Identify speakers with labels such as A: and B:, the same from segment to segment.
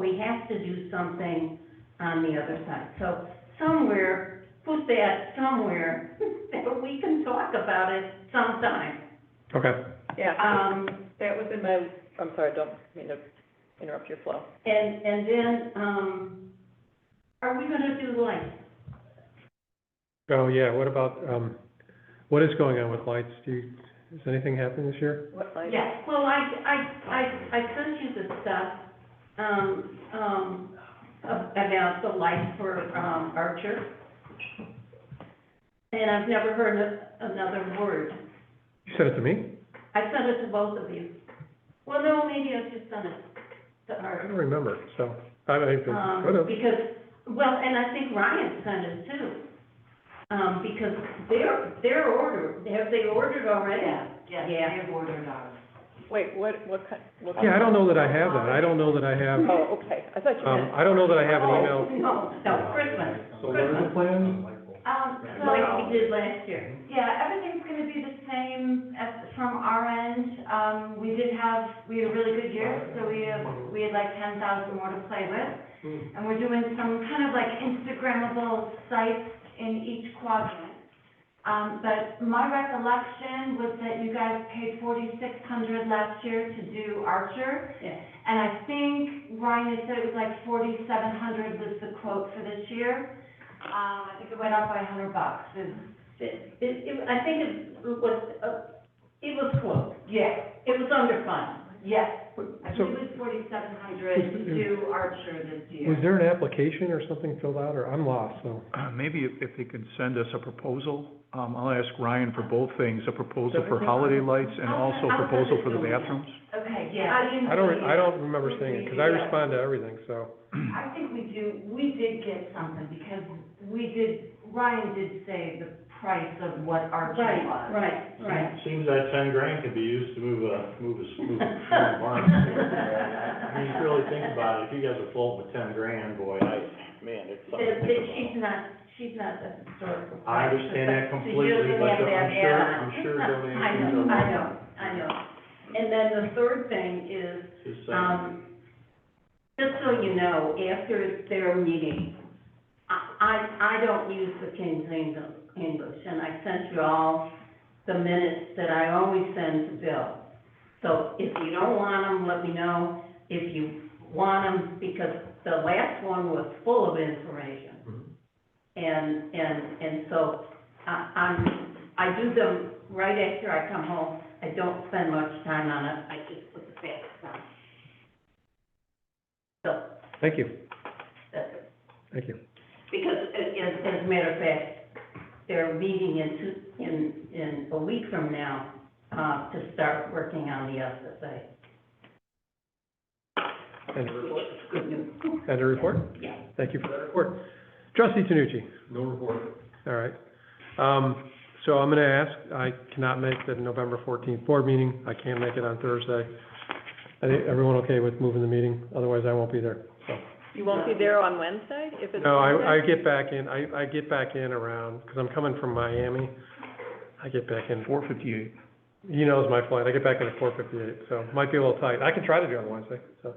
A: we have to do something on the other side. So somewhere, put that somewhere, that we can talk about it sometime.
B: Okay,
C: Yeah,
A: Um,
C: that was in my, I'm sorry, don't mean to interrupt your flow.
A: and, and then, um, are we gonna do lights?
B: oh, yeah, what about, um, what is going on with lights? Do you, has anything happened this year?
C: What line?
A: Yeah, well, I, I, I, I sent you the stuff, um, um, a- about the light for, um, Archer. And I've never heard a- another word.
B: You said it to me?
A: I sent it to both of you. Well, no, maybe I've just done it to
B: I don't
A: Archer.
B: remember, so, I, I
A: Um,
B: could have.
A: because, well, and I think Ryan sent it too. Um, because their, their order, have they ordered already?
D: Yes,
A: Yeah.
D: they have ordered ours.
C: Wait, what, what kind? what kind-
B: Yeah, I don't know that I have that. I don't know that I have,
C: Oh, okay, I thought you
B: um,
C: meant,
B: I don't know that I have an
A: Oh,
B: email.
A: no, no, Christmas.
E: So what are the plans?
D: Um,
A: like we
D: so,
A: did last year.
D: yeah, everything's gonna be the same as, from our end. Um, we did have, we had a really good year, so we have, we had like ten thousand more to play with. And we're doing some kind of like Instagrammable sites in each quadrant. Um, but my recollection was that you guys paid forty-six hundred last year to do Archer.
A: Yeah.
D: And I think Ryan had said it was like forty-seven hundred was the quote for this year. Um, I think it went up by a hundred bucks, is,
A: It, it, I think it was, uh, it was close.
D: yeah,
A: It was under five.
D: yes. I think
B: So-
D: it was forty-seven hundred to do Archer this
B: Was
D: year.
B: there an application or something filled out, or I'm lost, so.
F: Uh, Maybe if- if they can send us a proposal, um, I'll ask Ryan for both things, a proposal for holiday lights and also a proposal for the bathrooms.
D: Okay,
A: Yeah.
D: yeah.
B: I don't, I don't remember seeing it, because I respond to everything, so.
D: I think we do, we did get something, because we did, Ryan did say the price of what Archer
A: Right,
D: was.
A: right, right.
E: Seems that ten grand could be used to move a, move a, move a move a barn. Hmm. I mean, if you really think about it, if you guys are floating with ten grand, boy, I, man, it's
A: But
E: something to
A: but
E: think
A: she's
E: about.
A: not, she's not the historical.
E: I understand that
A: person, so you
E: completely,
A: don't
E: but
A: have to
E: I'm
A: have
E: sure-
A: that on.
E: I'm sure donations
A: I know,
E: are
A: I
E: welcome.
A: know, I know. And then the third thing is,
E: Just saying.
A: um, just so you know, after their meeting, I, I, I don't use the King's Eng- English, and I sent you all the minutes that I always send to Bill. So if you don't want them, let me know. If you want them, because the last one was full of information. And, and, and so I, I'm, I do them right after I come home. I don't spend much time on it. I just put the facts on. So,
B: Thank you,
A: that's it.
B: thank you.
A: Because, uh, as, as a matter of fact, they're meeting in two, in, in a week from now, uh, to start working on the SSA.
B: End of report.
A: Good news.
B: End of report?
A: Yeah.
B: Thank you for that report. Trustee Tanucci?
E: No report.
B: All right. Um, so I'm gonna ask, I cannot make the November fourteenth board meeting, I can't make it on Thursday. I think, everyone okay with moving the meeting? Otherwise, I won't be there.
C: you won't be there on Wednesday if it's.
B: No, I, I
C: Wednesday?
B: get back in, I, I get back in around, because I'm coming from Miami. I get back in,
F: Four fifty-eight.
B: he knows my flight, I get back in at four fifty-eight, so might be a little tight. I can try to do it on Wednesday, so.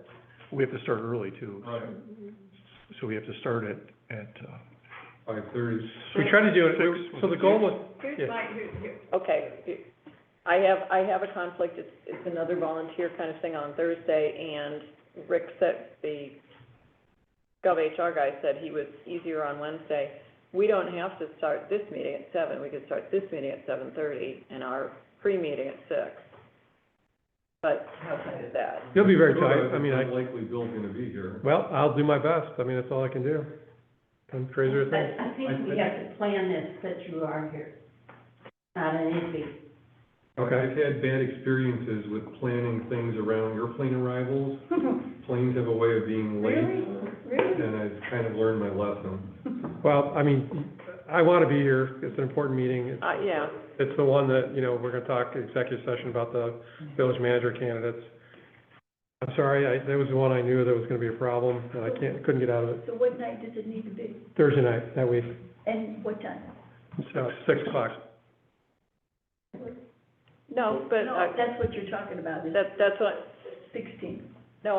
F: We have to start early too,
E: Right,
F: so we have to start at, at, uh,
E: five thirty.
B: We try to do it, we- so the goal was,
C: Here's
B: yeah.
C: my, here, here, okay. I have, I have a conflict, it's, it's another volunteer kind of thing on Thursday, and Rick said, the Gov HR guy said he was easier on Wednesday. We don't have to start this meeting at seven, we could start this meeting at seven thirty, and our pre-meeting at six. But how can I do that?
B: You'll be very tight. I mean, I-
E: Likely Bill's gonna be here.
B: well, I'll do my best, I mean, that's all I can do. I'm crazier than.
A: But I think we have to plan this, that you are here. Not an easy.
B: Okay.
G: I've had bad experiences with planning things around airplane arrivals. Planes have a way of being late,
A: Really?
G: and I've kind of learned my lesson.
B: Well, I mean, I want to be here, it's an important meeting. It's-
C: Uh, yeah,
B: It's the one that, you know, we're going to talk executive session about the village manager candidates. I'm sorry, I, that was the one I knew that was going to be a problem, and I can't, couldn't get out of it.
H: So what night does it need to be,
B: Thursday night, that week,
H: and what time?
B: uh, six o'clock.
C: no, but,
H: No,
C: uh,
H: that's what you're talking about, is
C: that, that's what,
H: sixteen.